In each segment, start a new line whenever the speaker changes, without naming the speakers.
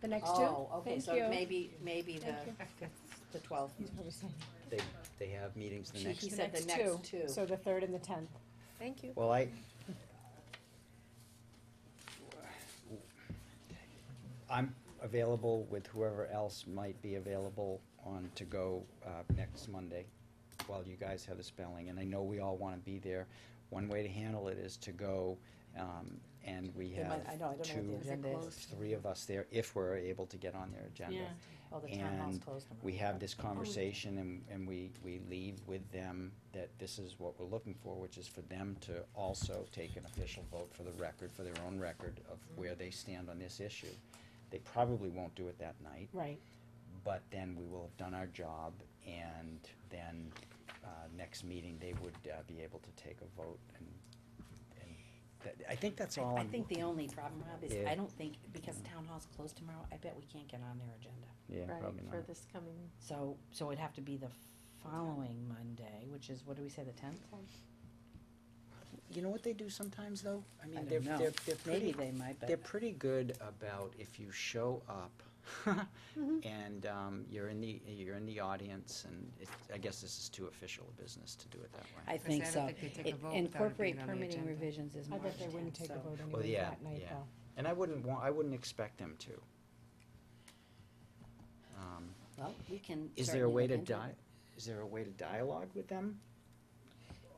the next two?
Oh, okay,
Thank
so
you.
maybe, maybe the,
Thank you.
the twelfth.
He's probably saying,
They, they have meetings the
She-
next,
he said the next two.
So the third and the tenth.
Thank you.
well, I. I'm available with whoever else might be available on to go, uh, next Monday while you guys have the spelling, and I know we all wanna be there. One way to handle it is to go, um, and we
They
have
might- I know, I don't know what the
two,
agenda is.
three of us there if we're able to get on their agenda.
Yeah.
Oh, the town hall's
and
closed tomorrow.
we have this conversation and, and we, we leave with them that this is what we're looking for, which is for them to also take an official vote for the record, for their own record of where they stand on this issue. They probably won't do it that night,
Right.
but then we will have done our job and then, uh, next meeting, they would, uh, be able to take a vote and, and that, I think that's all
I
I'm,
think the only problem, Rob, is
Um, Yeah.
I don't think, because town hall's closed tomorrow, I bet we can't get on their agenda.
yeah,
Right,
probably not.
for this coming,
So, so it'd have to be the following Monday, which is, what do we say, the tenth?
You know what they do sometimes though? I mean,
don't
they're,
know.
they're, they're pretty
Maybe they might,
They're
but
pretty good about if you show up
Mm-hmm.
and um, you're in the, you're in the audience and it, I guess this is too official a business to do it that way.
I think
I
so.
don't think they take a
It-
vote without it
Incorporate
being on the
permitting
agenda.
revisions is
I
March
bet they wouldn't
tenth,
take a
so.
vote anyway
yeah,
that night
yeah.
though.
And I wouldn't want, I wouldn't expect them to. Um,
Well, we can.
Is there a
certainly
way
look
to
into it.
di, is there a way to dialogue with them?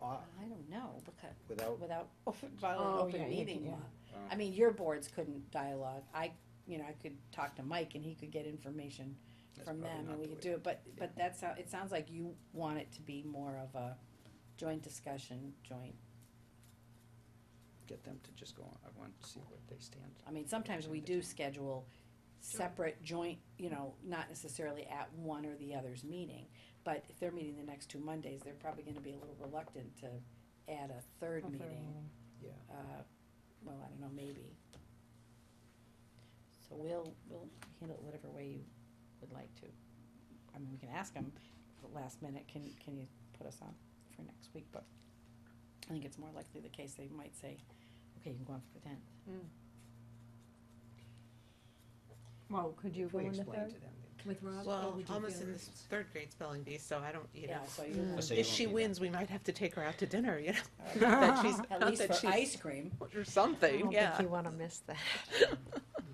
Uh,
I don't know, because,
Without,
without
Oh,
violating
yeah,
open
you can-
meeting law.
yeah.
Oh.
I mean, your boards couldn't dialogue, I, you know, I could talk to Mike and he could get information
That's
from
probably
them
not
and we
the
could
way.
do it, but, but that's how, it sounds like you want it to be more of a joint discussion, joint,
get them to just go on, I want to see what they stand.
I mean, sometimes we do schedule separate joint, you know, not necessarily at one or the other's meeting, but if they're meeting the next two Mondays, they're probably gonna be a little reluctant to add a third
Or third
meeting.
meeting.
Yeah.
uh, well, I don't know, maybe. So we'll, we'll handle it whatever way you would like to. I mean, we can ask them the last minute, can, can you put us on for next week, but I think it's more likely the case they might say, okay, you can go on for the tenth.
Well, could you
If
go
we
on the
explain
third
to them. they-
with Rob?
Well, almost in this third grade spelling bee, so I don't, you know.
Yeah, so you,
Oh, so you
If
won't
she
be there.
wins, we might have to take her out to dinner, you know?
Alright.
That she's,
at
not
least
that
for
she's-
ice cream,
Or
I
something,
don't
yeah.
think you wanna miss that.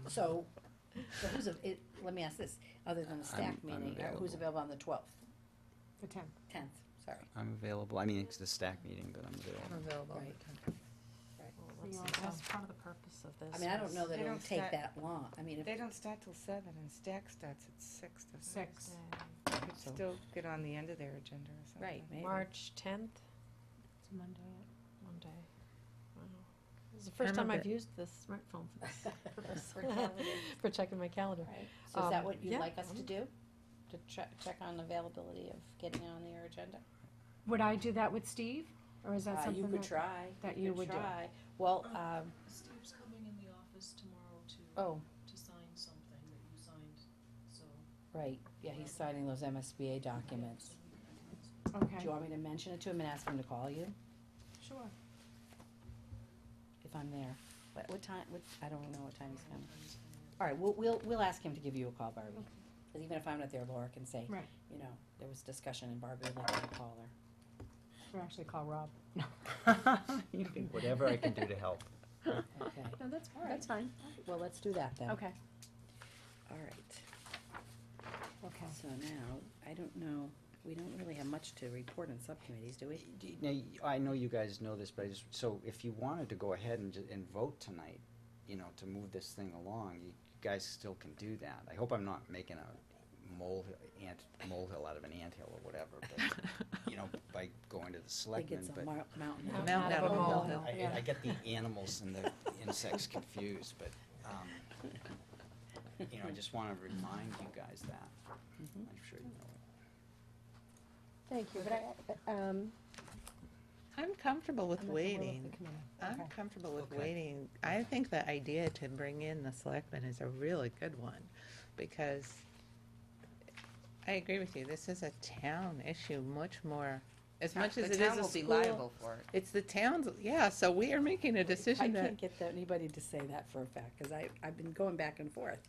so, so who's, av- it, let me ask this, other than the staff
I'm- I'm
meeting, uh, who's
available.
available on the twelfth,
The tenth.
tenth, sorry,
I'm available, I mean, it's the stack meeting, but I'm available.
I'm available.
right?
Well,
We
let's
all
see,
have-
That's part of the purpose of this.
I mean, I don't know
was-
that
They
it'll
don't
take
start-
that long, I mean, if
They don't start till seven and stack starts at six. doesn't it?
Six.
Uh,
Could
So-
Still get on the end of their agenda or something.
Right, maybe.
March tenth,
It's Monday.
Monday. Wow. This is the first time I've used this smartphone for this purpose. For checking my calendar.
Right, so is that
Um,
what you'd
yeah.
like us to do? To check, check on availability of getting on their agenda?
Would I do that with Steve? Or is that
Uh, you
something that?
could try.
that
could
you would do. Oh.
try. Well, um,
Steve's coming in the office tomorrow to,
oh,
to sign something that you signed, so.
right, yeah, he's signing those MSBA documents. Do
Okay.
you want me to mention it to him and ask him to call you
Sure.
if I'm there? What, what time, what, I don't know what time he's coming. All right, we'll, we'll, we'll ask him to give you a call, Barbie. Cause even if I'm not there, Laura can say,
Right.
you know, there was discussion and Barbie would like me to call her.
Or actually call Rob. No.
You can- Whatever I can do to help.
Okay,
No, that's,
that's fine. Well, let's do that then.
Okay,
All right.
okay.
So now, I don't know, we don't really have much to report on subcommittees, do we?
Do you- Now, you- I know you guys know this, but I just, so if you wanted to go ahead and, ju- and vote tonight, you know, to move this thing along, you guys still can do that. I hope I'm not making a mole, ant, molehill out of an anthill or whatever, but, you know, by going to the
I think it's
selectmen,
a
but.
mar- mountain.
Mountain
Mountain
out of a
Oh,
molehill.
I- I, I get the animals and the insects confused, but, um, you know, I just wanna remind you guys that.
Mhm.
I'm sure you know. it.
Thank you, but I, um,
I'm comfortable with
I'm at the will of the
waiting.
committee.
I'm
Okay.
comfortable with
Okay.
waiting. I think the idea to bring in the selectmen is a really good one, because I agree with you, this is a town issue much more, as much as it is a school.
for it.
It's the town's, yeah, so we are making a
I
decision that
can't get that- anybody to say that for a fact, cause I, I've been going back and forth.